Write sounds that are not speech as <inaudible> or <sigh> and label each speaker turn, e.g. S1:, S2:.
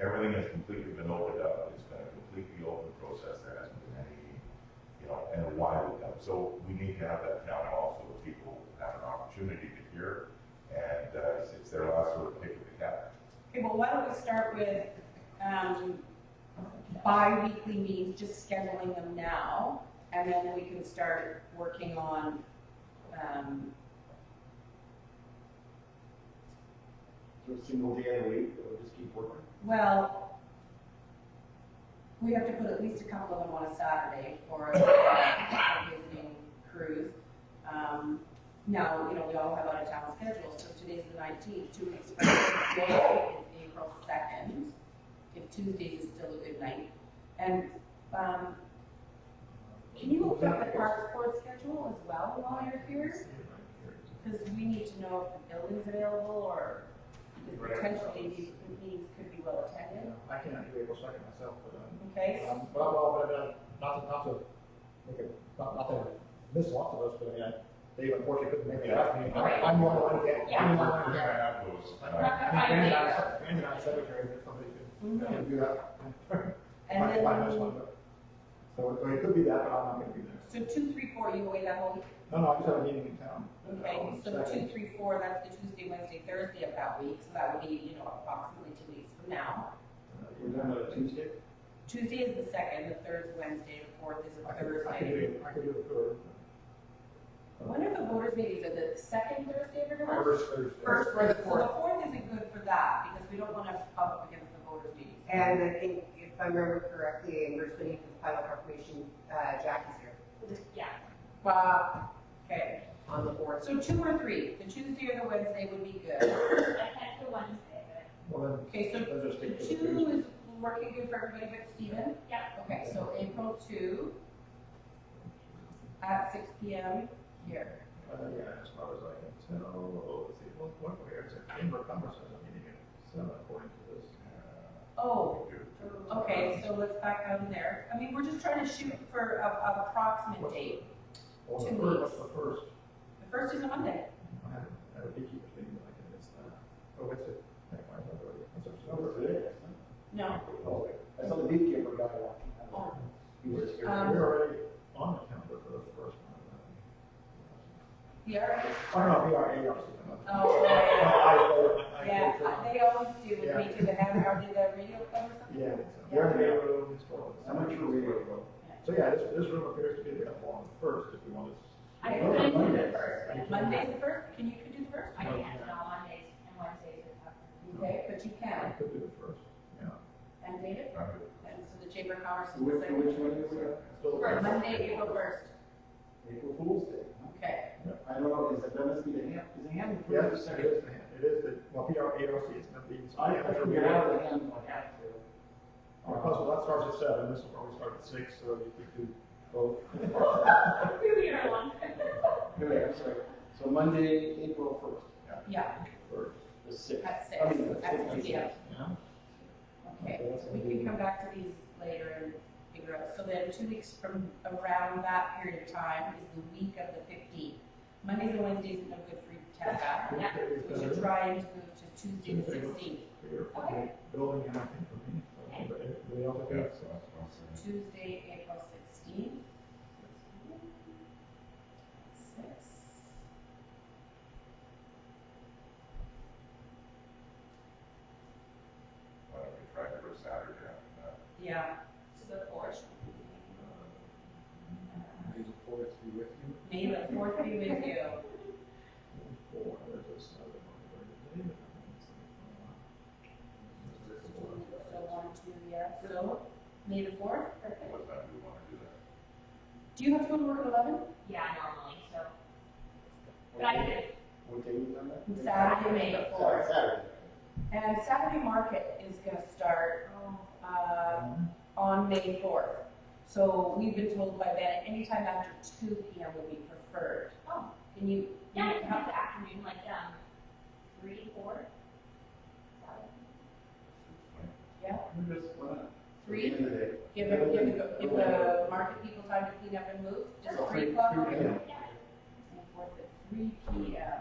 S1: everything has completely been opened up, it's been a completely open process, there hasn't been any, you know, and a wide open. So we need to have that town hall so that people have an opportunity to hear, and, uh, it's- it's their last sort of pick of the cat.
S2: Okay, well, why don't we start with, um, bi-weekly meetings, just scheduling them now, and then we can start working on, um,
S3: Do a single day of the week, or just keep working?
S2: well, we have to put at least a couple of them on a Saturday for a visiting cruise. Um, now, you know, we all have out-of-town schedules, so today's the nineteenth, two weeks from today is April second, if Tuesday is still a good night. And, um, Can you look up the park board schedule as well while you're here? Because we need to know if the building's available or if potentially these meetings could be well attended.
S4: I cannot do April second myself, but, um,
S2: Okay,
S4: um, well, well, but, uh, not to, not to make it, not, not to miss lots of us, but I mean, I- Dave unfortunately couldn't make it last meeting. I'm- I'm one of the ones that-
S1: We're
S4: I'm one of
S1: gonna
S4: the ones that-
S1: have those,
S4: I
S1: uh,
S4: mean, Brandon and I, Brandon and I secretary, but somebody could,
S2: Mhm.
S4: could do that. <laughs>
S2: and
S4: Might- might miss
S2: then,
S4: one, but- So, so it could be that, but I'm not gonna be there.
S2: so two, three, four, you away that whole, week?
S4: No, no, I just have a meeting in town.
S2: okay,
S4: Um,
S2: so two,
S4: second.
S2: three, four, that's the Tuesday, Wednesday, Thursday of that week, so that would be, you know, approximately two weeks from now.
S4: uh, We're done on Tuesday.
S2: Tuesday is the second, the third is Wednesday, the fourth is
S4: I
S2: a
S4: could, I could
S2: Thursday.
S4: do, I could do it for.
S2: When are the voters meetings, are the second Thursday of every month?
S4: First Thursday.
S2: First,
S4: Or the
S2: so
S4: fourth.
S2: the fourth isn't good for that, because we don't want to bump up against the voters' meeting.
S5: And I think, if I remember correctly, in Bruce Lee, the final confirmation, uh, Jackie's here
S2: Yeah. Uh, okay,
S5: on the board.
S2: so two or three, the Tuesday or the Wednesday would be good.
S6: I can't do Wednesday, but
S4: Well, then,
S2: Okay, so
S4: then just take the
S2: two is working good for everybody but Stephen?
S6: Yeah.
S2: Okay, so April two at six P M here.
S4: Uh, yeah, as far as I can tell, oh, let's see, what, what, where is it? Chamber of Commerce has a meeting at seven according to this. uh,
S2: Oh,
S1: do-
S2: okay, so let's back out of there. I mean, we're just trying to shoot for a, a approximate date.
S4: Oh, the
S2: Two
S4: first-
S2: weeks.
S4: The first,
S2: The first is a Monday.
S4: I had, I had a beekeeper's meeting, but I can miss that. Oh, what's it? Never mind, I've already- I'm sorry,
S2: Oh,
S3: No,
S4: sorry.
S3: it's today.
S2: No,
S3: Oh, I saw the beekeeper guy walking
S2: Oh.
S3: out. He was here.
S2: Um,
S4: We're already on the calendar for the first one.
S2: the R.
S4: Oh, no, we are, we are. I,
S2: Oh, yeah.
S4: I, I.
S2: Yeah, I- they always do with me
S4: Yeah.
S2: too, they have, are they the radio club or something?
S4: Yeah,
S2: Yeah.
S4: we're in the room, it's all.
S3: I'm not sure we were.
S4: So yeah, this, this room appears to be available on the first if you want to.
S6: I
S3: Oh,
S6: couldn't do
S3: Monday.
S6: the first, but
S2: Monday's the first, can you, could do the first?
S6: I can't, no, Mondays and Wednesdays are tough. <laughs>
S2: Okay, but you
S4: I
S2: can,
S4: could do the first, yeah.
S2: and date it,
S1: I'm good.
S2: and so the Chamber of Commerce is the
S3: Which,
S2: second.
S3: which one is it?
S4: Still-
S2: For Monday, April first,
S3: April Fool's Day. huh?
S2: okay,
S3: I don't know, is it, that must be the ham, is the ham the
S4: Yeah,
S3: first or
S4: it
S3: second?
S4: is, the hand. it is, the well, PR, ARC is not being.
S3: I, I can get out of the ham if I have to.
S4: Because that starts at seven, this will probably start at six, so you could do both.
S6: We are one.
S3: Anyway, I'm sorry. So Monday, April first,
S2: yeah,
S4: First,
S3: the sixth.
S2: at six,
S3: I mean, the
S2: at six
S3: sixth.
S2: P M,
S4: yeah.
S2: okay. We can come back to these later and figure out, so then two weeks from around that period of time is the week of the fifteenth. Mondays and Wednesdays are no good for Tessa,
S6: Yeah.
S2: we should try and move to Tuesday the sixteenth, Okay.
S4: Building, and I think for me,
S6: Okay.
S4: but anybody else have
S1: Yeah,
S4: that?
S1: so that's what I'm saying.
S2: Tuesday, April sixteenth. Six.
S1: Why don't we try for Saturday after that?
S2: Yeah. To the fourth.
S3: May the fourth be with you.
S2: May the fourth be with you.
S4: Four, there's a Saturday, Monday, Wednesday, and then it's like, uh,
S2: So one, two, yeah, so, May the fourth, perfect.
S1: What time do you wanna do that?
S2: Do you have to go to work at eleven?
S6: Yeah, normally, so, but I could,
S3: What day was that?
S2: Saturday, May the
S3: Sorry,
S2: fourth.
S3: Saturday.
S2: And Saturday market is gonna start,
S6: oh,
S2: uh, on May fourth. So we've been told by Ben, anytime after two P M would be preferred.
S6: Oh.
S2: Can you?
S6: yeah, I could have the afternoon, like, um, three, four.
S3: We just went up.
S2: Three?
S3: End of the day.
S2: Give, give, the- give the market people time to clean up and move, just three o'clock,
S3: Three, three,
S2: and
S3: yeah.
S6: Yeah,
S2: fourth at three P M.